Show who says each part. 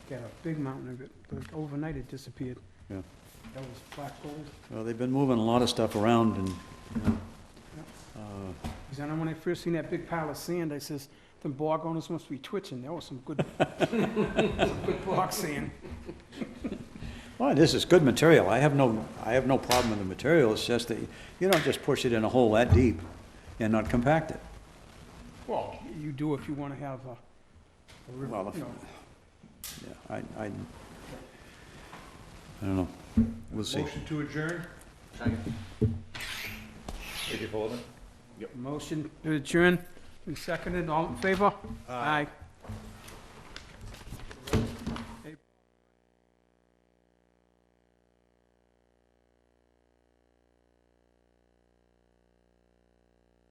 Speaker 1: got a big mountain of it, but overnight it disappeared.
Speaker 2: Yeah.
Speaker 1: That was black gold.
Speaker 2: Well, they've been moving a lot of stuff around and, you know, uh,
Speaker 1: Because I know when I first seen that big pile of sand, I says, them bog owners must be twitching, that was some good, some good bog sand.
Speaker 2: well, this is good material. I have no, I have no problem with the material. It's just that you don't just push it in a hole that deep and not compact it.
Speaker 1: Well, you do if you want to have a, a river,
Speaker 2: Well, if-
Speaker 1: you know,
Speaker 2: Yeah, I, I, I don't know. We'll see.
Speaker 3: Motion to adjourn?
Speaker 1: motion to adjourn, and seconded, all in favor? Aye.